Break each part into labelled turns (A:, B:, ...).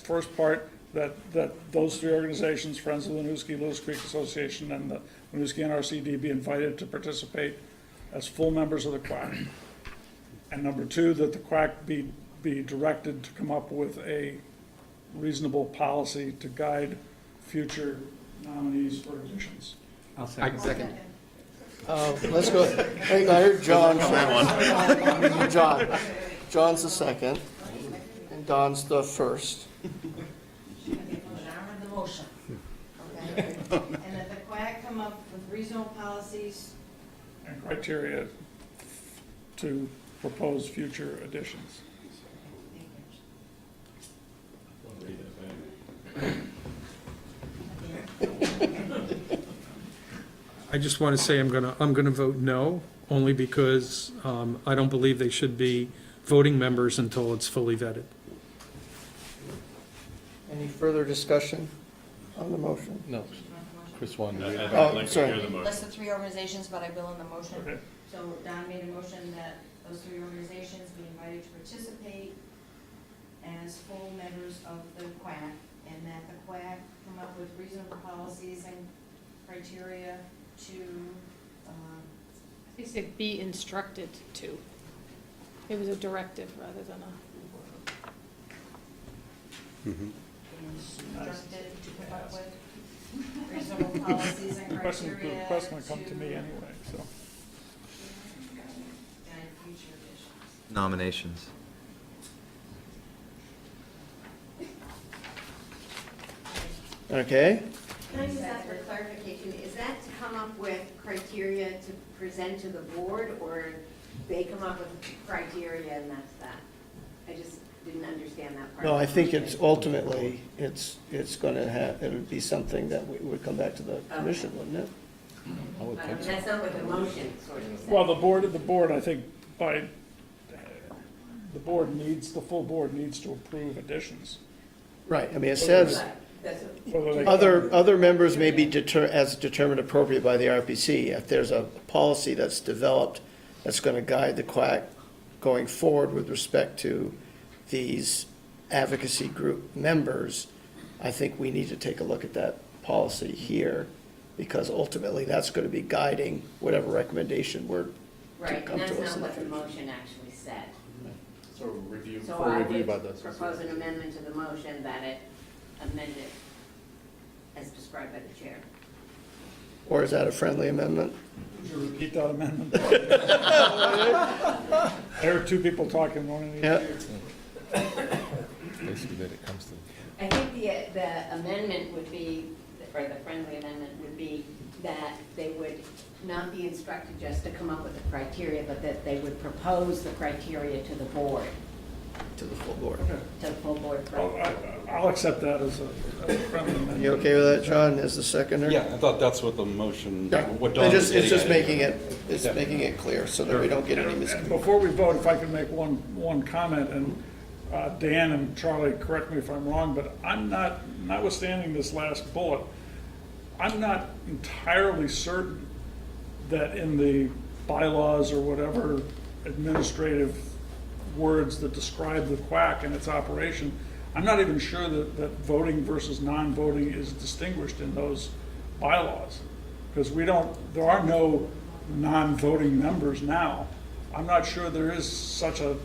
A: first part, that, that those three organizations, Friends of Winooski, Lewis Creek Association, and the Winooski NRCD be invited to participate as full members of the quack. And number two, that the quack be, be directed to come up with a reasonable policy to guide future nominees for additions.
B: I'll second.
C: Second.
D: Uh, Let's go, hey, I heard John. John, John's the second, and Don's the first.
E: Well, then I read the motion, okay? And that the quack come up with regional policies,
A: and criteria to propose future additions.
E: thank you.
F: I just want to say I'm going to, I'm going to vote no, only because um, I don't believe they should be voting members until it's fully vetted.
D: Any further discussion on the motion?
B: No, Chris wanted to read it.
D: Oh, sorry.
E: list the three organizations, but I will in the motion.
A: Okay.
E: So Don made a motion that those three organizations be invited to participate as full members of the QUAC, and that the QUAC come up with reasonable policies and criteria to, um,
G: They said be instructed to. It was a directive rather than a,
E: be instructed to come up with reasonable policies and
A: The question, the
E: criteria to.
A: question will come to me anyway, so.
E: Guide future issues.
C: Nominations.
D: Okay,
H: Can I just ask for clarification, is that to come up with criteria to present to the board, or they come up with criteria and that's that? I just didn't understand that part.
D: no, I think it's ultimately, it's, it's gonna have, it would be something that we would come back to the commission, wouldn't it?
B: I would
H: But I
B: think
H: mean,
B: so.
H: that's not what the motion sort of said.
A: Well, the board, the board, I think, by, the board needs, the full board needs to approve additions.
D: Right, I mean, it says,
H: But that's what-
A: whether they-
D: other, other members may be deter, as determined appropriate by the RPC. If there's a policy that's developed that's gonna guide the quack going forward with respect to these advocacy group members, I think we need to take a look at that policy here, because ultimately, that's gonna be guiding whatever recommendation we're
H: Right,
D: come
H: and that's
D: to us
H: not
D: in the
H: what the
D: future.
H: motion actually said.
B: So review,
H: So
B: for
H: I
B: review
H: would
B: by the.
H: propose an amendment to the motion that it amended as described by the chair.
D: Or is that a friendly amendment?
A: Would you repeat that amendment? There are two people talking, one in each.
D: Yeah.
B: Basically, that it comes to.
H: I think the, the amendment would be, or the friendly amendment would be that they would not be instructed just to come up with the criteria, but that they would propose the criteria to the board,
D: To the full board.
H: to the full board.
A: I'll, I- I'll accept that as a as a friendly amendment.
D: You okay with that, John, as the seconder?
I: Yeah, I thought that's what the motion,
D: Yeah,
I: what
D: I
I: Don was
D: just,
I: getting
D: it's just
I: at.
D: making it, it's making it clear so that we don't get any
A: And
D: miscommunication.
A: Before we vote, if I could make one, one comment, and uh, Dan and Charlie, correct me if I'm wrong, but I'm not, notwithstanding this last bullet, I'm not entirely certain that in the bylaws or whatever administrative words that describe the quack and its operation, I'm not even sure that, that voting versus non-voting is distinguished in those bylaws. Because we don't, there are no non-voting members now. I'm not sure there is such a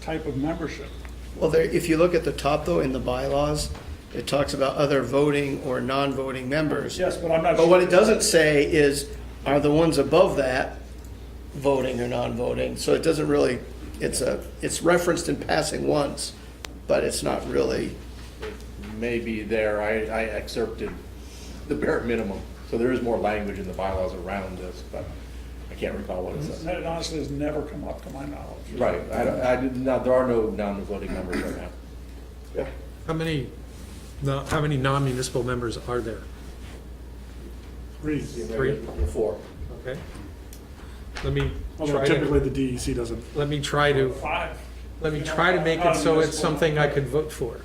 A: type of membership.
D: Well, there, if you look at the top though, in the bylaws, it talks about other voting or non-voting members.
A: Yes, but I'm not sure.
D: But what it doesn't say is, are the ones above that voting or non-voting? So it doesn't really, it's a, it's referenced in passing once, but it's not really,
B: Maybe there, I, I excerpted the bare minimum, so there is more language in the bylaws around this, but I can't recall what it says.
A: That honestly has never come up to my knowledge.
B: Right, I, don't- I did not, there are no non-voting members right now.
F: How many, no- how many non-municipal members are there?
J: Three.
F: Three?
B: Four.
F: Okay. Let me
J: Although
F: try to,
J: typically the DEC doesn't.
F: let me try to,
A: E Five.
F: let me try to make it so it's something I could vote for.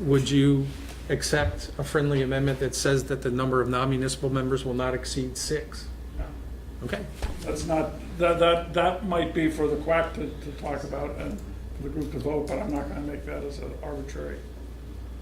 F: Would you accept a friendly amendment that says that the number of non-municipal members will not exceed six? Okay.
A: That's not, that, that, that might be for the quack to, to talk about and for the group to vote, but I'm not gonna make that as an arbitrary